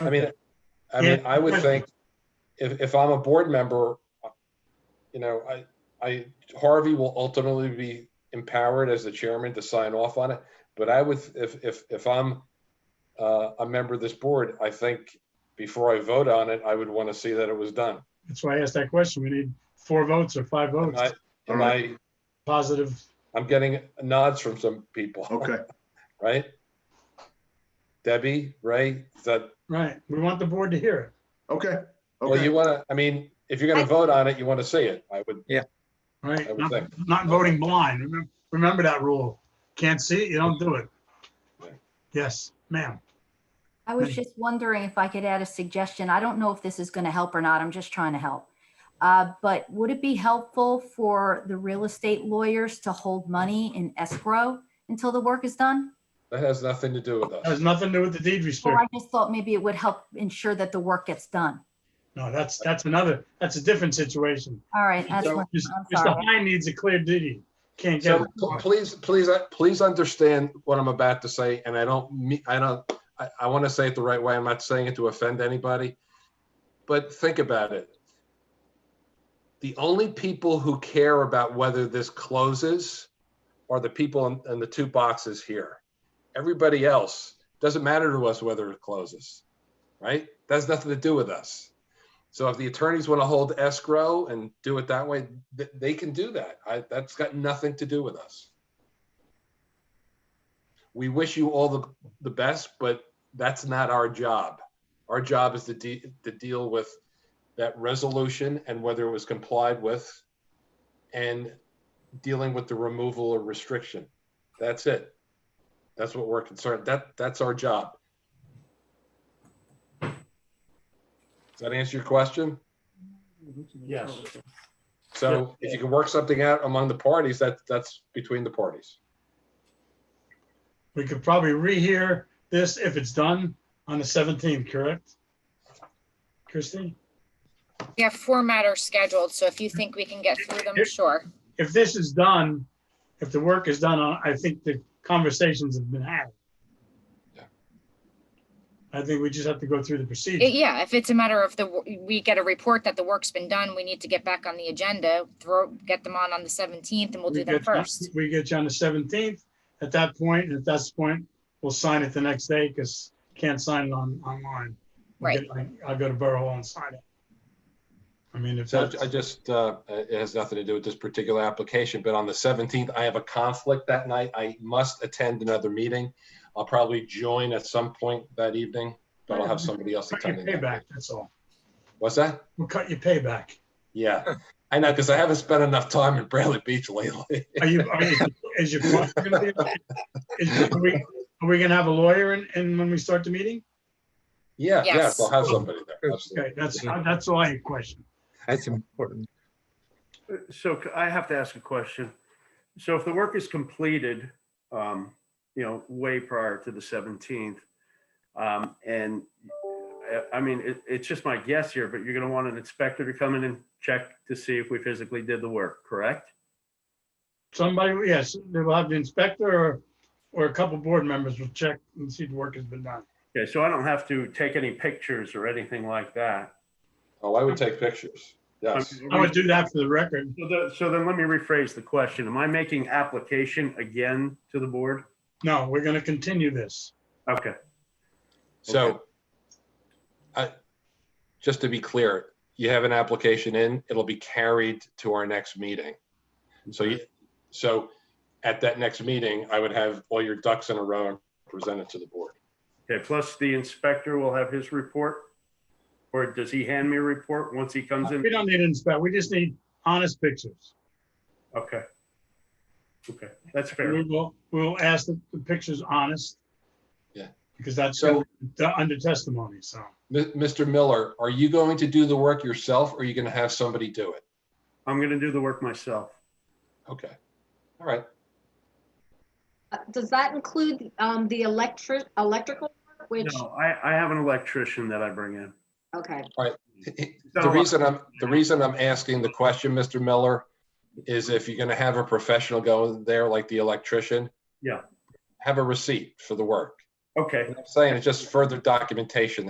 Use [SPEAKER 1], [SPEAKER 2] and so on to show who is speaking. [SPEAKER 1] I mean, I
[SPEAKER 2] Yeah.
[SPEAKER 1] mean, I would think if, if I'm a board member, you know, I, I, Harvey will ultimately be empowered as the chairman to sign off on it. But I would, if, if, if I'm uh, a member of this board, I think before I vote on it, I would want to see that it was done.
[SPEAKER 2] That's why I asked that question. We need four votes or five
[SPEAKER 1] And
[SPEAKER 2] votes,
[SPEAKER 1] I, and I,
[SPEAKER 2] positive.
[SPEAKER 1] I'm getting nods from some people.
[SPEAKER 3] Okay,
[SPEAKER 1] Right? Debbie, Ray, is that,
[SPEAKER 2] Right. We want the board to hear it.
[SPEAKER 3] okay,
[SPEAKER 1] well, you
[SPEAKER 3] okay.
[SPEAKER 1] want to, I mean, if you're going
[SPEAKER 4] I-
[SPEAKER 1] to vote on it, you want to see it. I would, I
[SPEAKER 2] Right,
[SPEAKER 1] would
[SPEAKER 2] not,
[SPEAKER 1] think.
[SPEAKER 2] not voting blind. Remem- Remember that rule. Can't see it, you don't do it.
[SPEAKER 1] Right.
[SPEAKER 2] Yes, ma'am.
[SPEAKER 4] I was
[SPEAKER 2] Mhm.
[SPEAKER 4] just wondering if I could add a suggestion. I don't know if this is going to help or not. I'm just trying to help. Uh, But would it be helpful for the real estate lawyers to hold money in escrow until the work is done?
[SPEAKER 1] that has nothing to do with us.
[SPEAKER 2] That has nothing to do with the deed
[SPEAKER 4] Well, I
[SPEAKER 2] restriction.
[SPEAKER 4] just thought maybe it would help ensure that the work gets done.
[SPEAKER 2] No, that's, that's another, that's a different situation.
[SPEAKER 4] All right, Oh, that's
[SPEAKER 1] So,
[SPEAKER 4] what,
[SPEAKER 2] Mr.
[SPEAKER 4] I'm
[SPEAKER 2] Mr.
[SPEAKER 4] sorry.
[SPEAKER 2] Hine needs a clear deed. Can't get,
[SPEAKER 1] So
[SPEAKER 2] it.
[SPEAKER 1] pl- please, please, uh, please understand what I'm about to say, and I don't, me- I don't, I, I want to say it the right way. I'm not saying it to offend anybody. But think about it. The only people who care about whether this closes are the people in, in the two boxes here. Everybody else, doesn't matter to us whether it closes, right? That has nothing to do with us. So if the attorneys want to hold escrow and do it that way, th- they can do that. I, that's got nothing to do with us. We wish you all the, the best, but that's not our job. Our job is to de- to deal with that resolution and whether it was complied with and dealing with the removal or restriction. That's it. That's what we're concerned. That, that's our job. Does that answer your question?
[SPEAKER 2] yes.
[SPEAKER 1] So if you can work something out among the parties, that, that's between the parties.
[SPEAKER 2] We could probably rehear this if it's done on the 17th, correct? Christie?
[SPEAKER 5] We have four matters scheduled, so if you think we can get through them, sure.
[SPEAKER 2] if this is done, if the work is done, I think the conversations have been had.
[SPEAKER 1] Yeah.
[SPEAKER 2] I think we just have to go through the
[SPEAKER 5] It-
[SPEAKER 2] procedure.
[SPEAKER 5] Yeah, if it's a matter of the, we get a report that the work's been done, we need to get back on the agenda, throw, get them on on the 17th and we'll do
[SPEAKER 2] We
[SPEAKER 5] them
[SPEAKER 2] get you-
[SPEAKER 5] first.
[SPEAKER 2] We get you on the seventeenth. At that point, at that point, we'll sign it the next day because can't sign it on, online. We'll
[SPEAKER 5] Right.
[SPEAKER 2] get- I- I'll go to Borough Hall and sign it. I mean, if
[SPEAKER 1] So
[SPEAKER 2] that's,
[SPEAKER 1] I just, uh, it has nothing to do with this particular application, but on the 17th, I have a conflict that night. I must attend another meeting. I'll probably join at some point that evening, but I'll have somebody else
[SPEAKER 2] cut your
[SPEAKER 1] attending. that.
[SPEAKER 2] payback, that's all.
[SPEAKER 1] What's that?
[SPEAKER 2] We'll cut your payback.
[SPEAKER 1] Yeah, I know, because I haven't spent enough time in Bradley Beach lately.
[SPEAKER 2] Are you, are you, is your, is your- are we, are we gonna have a lawyer in, in when we start the meeting?
[SPEAKER 1] Yeah, yes,
[SPEAKER 5] Yes.
[SPEAKER 1] I'll have somebody there. absolutely.
[SPEAKER 2] Okay, that's, that's all I question.
[SPEAKER 6] That's important.
[SPEAKER 3] So c- I have to ask a question. So if the work is completed, um, you know, way prior to the 17th, um, and I- I mean, it, it's just my guess here, but you're going to want an inspector to come in and check to see if we physically did the work, correct?
[SPEAKER 2] Somebody, yes, they will have the inspector or, or a couple board members will check and see the work has been done.
[SPEAKER 3] Okay, so I don't have to take any pictures or anything like that.
[SPEAKER 1] Oh, I would take pictures. Yes,
[SPEAKER 2] I would do that for the record.
[SPEAKER 3] So the- So then let me rephrase the question. Am I making application again to the board?
[SPEAKER 2] No, we're gonna continue this.
[SPEAKER 3] Okay,
[SPEAKER 1] so I, just to be clear, you have an application in, it'll be carried to our next meeting. So you, so at that next meeting, I would have all your ducks in a row and present it to the board.
[SPEAKER 3] okay, plus the inspector will have his report? Or does he hand me a report once he comes in?
[SPEAKER 2] We don't need an inspector, we just need honest pictures.
[SPEAKER 3] Okay. Okay, that's
[SPEAKER 2] We
[SPEAKER 3] fair.
[SPEAKER 2] will, we'll ask that the picture's honest.
[SPEAKER 1] Yeah.
[SPEAKER 2] Because that's
[SPEAKER 1] So-
[SPEAKER 2] the- under testimony, so.
[SPEAKER 1] Mi- Mr. Miller, are you going to do the work yourself or are you going to have somebody do it?
[SPEAKER 3] I'm gonna do the work myself.
[SPEAKER 1] Okay, all right.
[SPEAKER 7] Uh, Does that include um, the electric, electrical, work, which,
[SPEAKER 3] No, I, I have an electrician that I bring in.
[SPEAKER 7] okay.
[SPEAKER 3] uh,
[SPEAKER 1] The reason I'm, the reason I'm asking the question, Mr. Miller, is if you're gonna have a professional go there, like the electrician.
[SPEAKER 3] Yeah.
[SPEAKER 1] Have a receipt for the work.
[SPEAKER 3] Okay.
[SPEAKER 1] I'm saying it's just further documentation